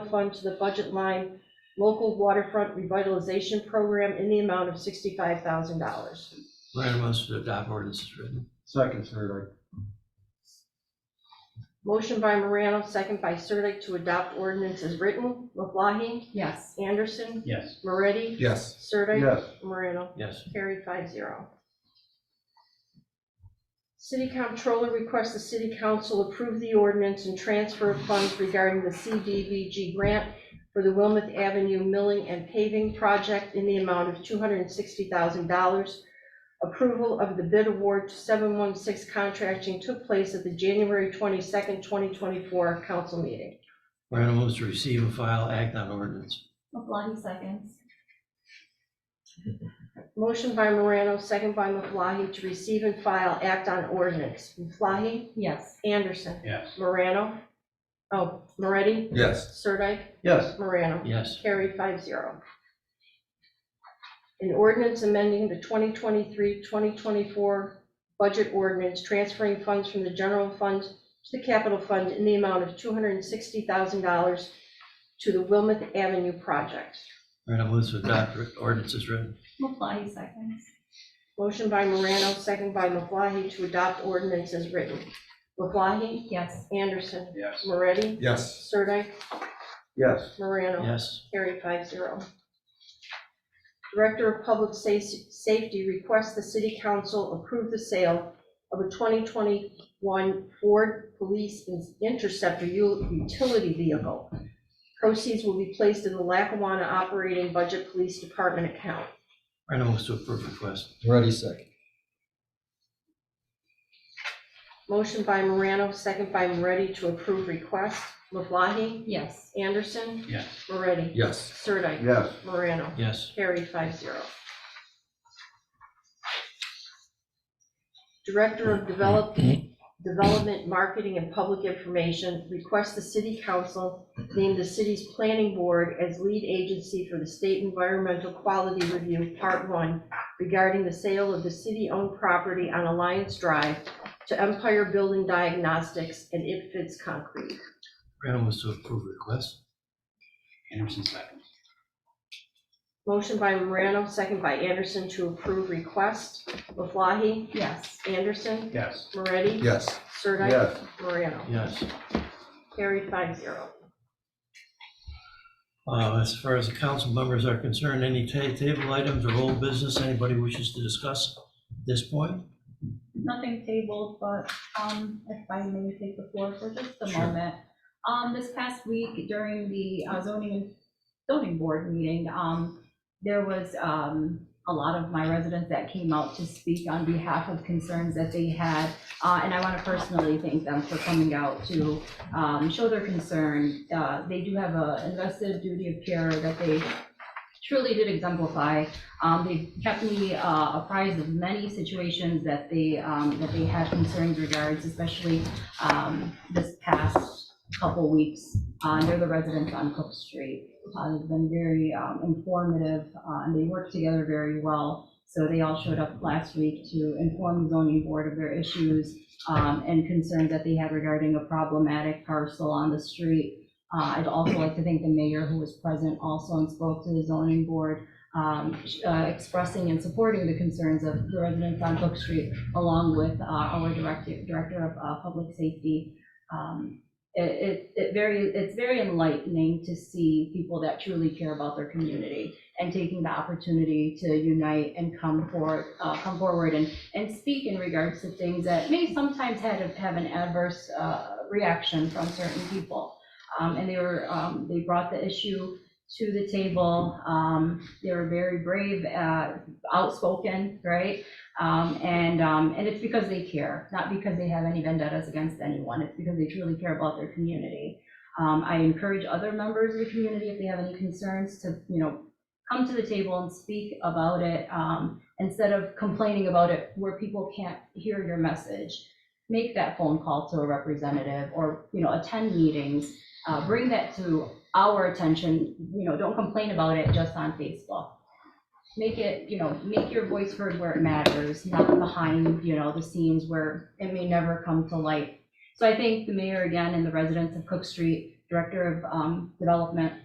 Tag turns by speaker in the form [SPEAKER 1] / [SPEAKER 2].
[SPEAKER 1] fund to the budget line local waterfront revitalization program in the amount of sixty-five thousand dollars.
[SPEAKER 2] Random moves to adopt ordinance is written.
[SPEAKER 3] Second, Sirdike.
[SPEAKER 1] Motion by Morano, second by Sirdike to adopt ordinance as written. LeBlancy,
[SPEAKER 4] yes,
[SPEAKER 1] Anderson,
[SPEAKER 5] yes,
[SPEAKER 1] Moretti,
[SPEAKER 3] Yes.
[SPEAKER 1] Sirdike.
[SPEAKER 3] Yes.
[SPEAKER 1] Morano.
[SPEAKER 2] Yes.
[SPEAKER 1] Carried five zero. City Comptroller requests the City Council approve the ordinance and transfer of funds regarding the CDVG grant for the Wilmouth Avenue Milling and Paving Project in the amount of $260,000. Approval of the bid award to 716 Contracting took place at the January 22nd, 2024 council meeting.
[SPEAKER 2] Random moves to receive and file act on ordinance.
[SPEAKER 4] LeBlancy seconds,
[SPEAKER 1] Motion by Morano, second by Maflahe, to receive and file act on ordinance. Maflahe?
[SPEAKER 4] yes,
[SPEAKER 1] Anderson?
[SPEAKER 5] yes,
[SPEAKER 1] Morano? Oh, Moretti?
[SPEAKER 3] Yes.
[SPEAKER 1] Sirdike?
[SPEAKER 3] Yes.
[SPEAKER 1] Morano?
[SPEAKER 2] Yes.
[SPEAKER 1] Carried five zero. An ordinance amending the 2023-2024 budget ordinance, transferring funds from the general fund to the capital fund in the amount of $260,000 to the Wilmouth Avenue project.
[SPEAKER 2] Random moves to adopt ordinance is written.
[SPEAKER 4] LeBlancy seconds,
[SPEAKER 1] Motion by Morano, second by Maflahe, to adopt ordinance as written. Maflahe?
[SPEAKER 4] yes,
[SPEAKER 1] Anderson?
[SPEAKER 5] yes,
[SPEAKER 1] Moretti?
[SPEAKER 3] Yes.
[SPEAKER 1] Sirdike?
[SPEAKER 3] Yes.
[SPEAKER 1] Morano?
[SPEAKER 2] Yes.
[SPEAKER 1] Carried five zero. Director of Public Sa- Safety requests the city council approve the sale of a 2021 Ford Police Interceptor u- utility vehicle. Proceeds will be placed in the Lackawanna Operating Budget Police Department account.
[SPEAKER 2] Random moves to approve request.
[SPEAKER 3] Ready, second.
[SPEAKER 1] Motion by Morano, second by Moretti to approve request. LeBlancy,
[SPEAKER 4] yes,
[SPEAKER 1] Anderson,
[SPEAKER 5] yes,
[SPEAKER 1] Moretti,
[SPEAKER 3] Yes.
[SPEAKER 1] Sirdike,
[SPEAKER 3] Yes.
[SPEAKER 1] Morano.
[SPEAKER 2] Yes.
[SPEAKER 1] Carried five zero. Director of Develop, Development, Marketing, and Public Information requests the city council name the city's planning board as lead agency for the state environmental quality review, part one, regarding the sale of the city-owned property on Alliance Drive to Empire Building Diagnostics and It Fits Concrete.
[SPEAKER 2] Random moves to approve request.
[SPEAKER 5] Anderson seconds,
[SPEAKER 1] Motion by Morano, second by Anderson to approve request. LeBlancy,
[SPEAKER 4] yes,
[SPEAKER 1] Anderson,
[SPEAKER 5] yes,
[SPEAKER 1] Moretti?
[SPEAKER 3] Yes.
[SPEAKER 1] Sirdike?
[SPEAKER 3] Yes.
[SPEAKER 1] Morano?
[SPEAKER 2] Yes.
[SPEAKER 1] Carried five zero.
[SPEAKER 2] Uh, As far as the council members are concerned, any ta- table items or old business anybody wishes to discuss at this point?
[SPEAKER 6] nothing tabled, but um, if I may take the floor for just a
[SPEAKER 2] Sure.
[SPEAKER 6] moment. Um, This past week during the uh, zoning and zoning board meeting, um, there was um, a lot of my residents that came out to speak on behalf of concerns that they had. uh, And I want to personally thank them for coming out to um, show their concern. Uh, They do have a invested duty of care that they truly did exemplify. Um, They've kept me uh, apprised of many situations that they, um, that they had concerns regards, especially um, this past couple weeks. Uh, They're the residents on Cook Street. Uh, They've been very um, informative, uh, and they work together very well. So they all showed up last week to inform the zoning board of their issues um, and concerns that they had regarding a problematic parcel on the street. Uh, I'd also like to thank the mayor who was present also and spoke to the zoning board um, uh, expressing and supporting the concerns of the residents on Brook Street, along with uh, our director, director of uh, public safety. Um, It, it, it very, it's very enlightening to see people that truly care about their community and taking the opportunity to unite and come for, uh, come forward and, and speak in regards to things that may sometimes had, have an adverse uh, reaction from certain people. Um, And they were, um, they brought the issue to the table. Um, they were very brave, uh, outspoken, right? Um, and, um, and it's because they care, not because they have any vendettas against anyone. It's because they truly care about their community. Um, I encourage other members of the community, if they have any concerns, to, you know, come to the table and speak about it, um, instead of complaining about it where people can't hear your message. Make that phone call to a representative or, you know, attend meetings, uh, bring that to our attention, you know, don't complain about it just on Facebook. Make it, you know, make your voice heard where it matters, not behind, you know, the scenes where it may never come to light. So I thank the mayor again and the residents of Cook Street Director of um, Development,